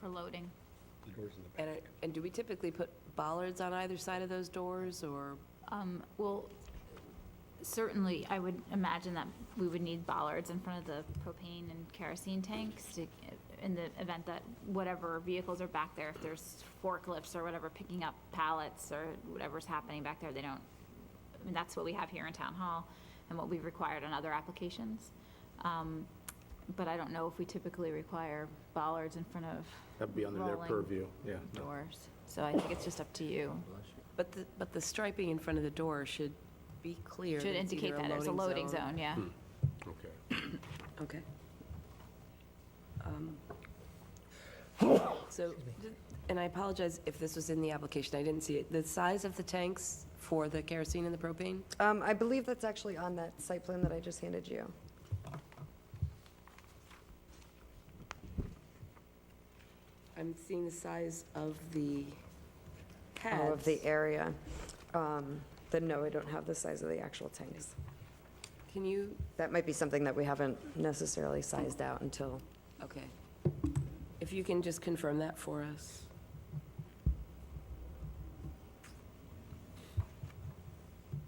for loading. The doors in the back. And, it- and do we typically put bollards on either side of those doors, or? Um, Well, certainly, I would imagine that we would need bollards in front of the propane and kerosene tanks to, in the event that whatever vehicles are back there, if there's forklifts or whatever picking up pallets or whatever's happening back there, they don't, I mean, that's what we have here in Town Hall and what we've required on other applications. Um, But I don't know if we typically require bollards in front of That'd be under their Rolling. purview, yeah. no. doors. So I think it's just up to you. But the, but the striping in front of the door should be clear. Should that it's indicate either that it's a loading zone, yeah. Okay. Okay. Um, So, and I apologize if this was in the application, I didn't see it. The size of the tanks for the kerosene and the propane? Um, I believe that's actually on that site plan that I just handed you. I'm seeing the size of the pads. All Oh, of the area. Um, Then no, I don't have the size of the actual tanks. Can you, That might be something that we haven't necessarily sized out until, okay. If you can just confirm that for us.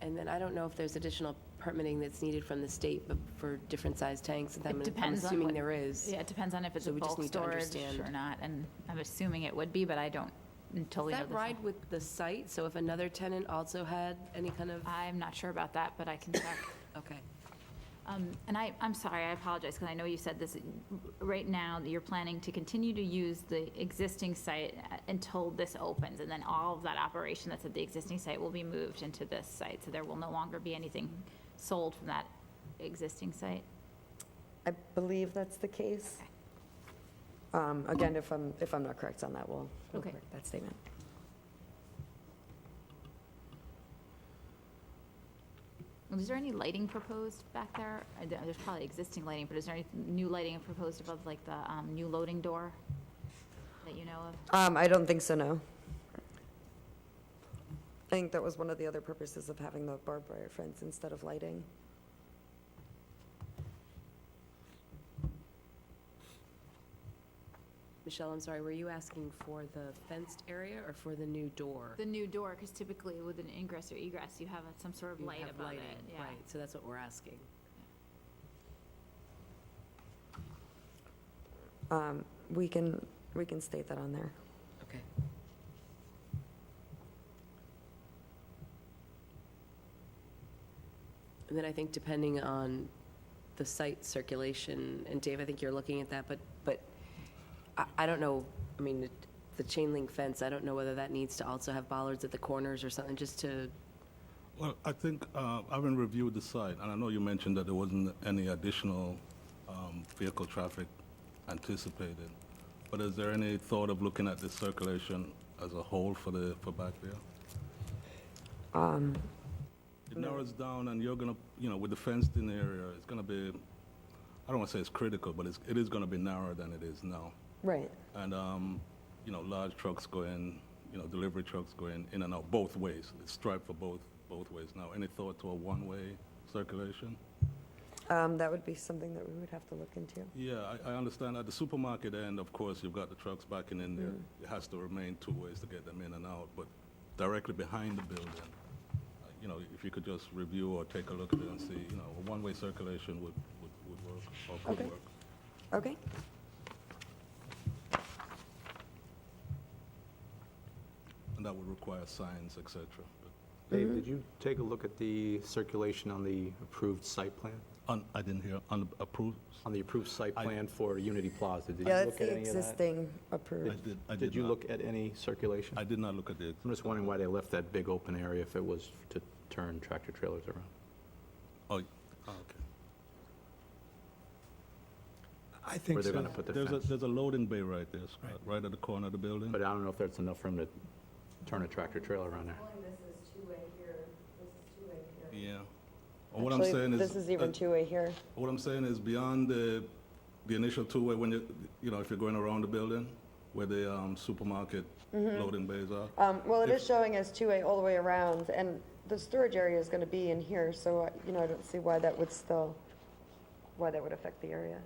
And then I don't know if there's additional permitting that's needed from the state but for different size tanks. and I'm- It depends I'm on assuming what- there is. Yeah, it depends on if it's So a we just bulk need to storage understand. or not, and I'm assuming it would be, but I don't totally Does know that this. ride with the site? So if another tenant also had any kind of, I'm not sure about that, but I can check. okay. Um, And I, I'm sorry, I apologize, because I know you said this, right now, that you're planning to continue to use the existing site uh, until this opens, and then all of that operation that's at the existing site will be moved into this site, so there will no longer be anything sold from that existing site. I believe that's the case. Um, Again, if I'm, if I'm not correct on that, we'll, we'll Okay. correct that statement. And Is there any lighting proposed back there? I don't- There's probably existing lighting, but is there any new lighting proposed above, like, the um, new loading door that you know of? Um, I don't think so, no. I think that was one of the other purposes of having the barbed wire fence instead of lighting. Michelle, I'm sorry, were you asking for the fenced area or for the new door? The new door, because typically with an ingress or egress, you have uh, some sort of You light have above it, lighting, yeah. Right, so that's what we're asking. Um, We can, we can state that on there. Okay. And then I think depending on the site circulation, and Dave, I think you're looking at that, but, but I, I don't know, I mean, the- the chain link fence, I don't know whether that needs to also have bollards at the corners or something, just to, Well, I think, uh, having reviewed the site, and I know you mentioned that there wasn't any additional um, vehicle traffic anticipated, but is there any thought of looking at the circulation as a whole for the, for back there? It narrows down, and you're gonna, you know, with the fenced-in area, it's gonna be, I don't wanna say it's critical, but it's, it is gonna be narrower than it is now. Right. And, um, you know, large trucks going, you know, delivery trucks going in and out both ways. It's striped for both, both ways now. Any thought to a one-way circulation? Um, That would be something that we would have to look into. Yeah, I, I understand. At the supermarket end, of course, you've got the trucks backing in there. It has to remain two ways to get them in and out, but directly behind the building, uh, you know, if you could just review or take a look at it and see, you know, a one-way circulation would, would, would work or Okay. could work. Okay. And that would require signs, et cetera. But- Mm-hmm. Dave, did you take a look at the circulation on the approved site plan? On, I didn't hear, on approved? On the approved site I- plan for Unity Plaza? Did you Yeah, look that's at the any of that? existing I approved. did, I did Did you not. look at any circulation? I did not look at the, I'm just wondering why they left that big open area if it was to turn tractor trailers around. oh, okay. I think Where they're so. gonna put the There's a, fence. there's a loading bay right there, Scott, right at the corner of the building. But I don't know if that's enough for them to turn a tractor trailer around there. Yeah. Or What I'm saying is. This is even uh, two-way here. What I'm saying is beyond the, the initial two-way, when you, you know, if you're going around the building, where the um, supermarket loading bays are. Mm-hmm. Um, Well, it is If- showing as two-way all the way around, and the storage area is going to be in here, so, uh, you know, I don't see why that would still, why that would affect the area.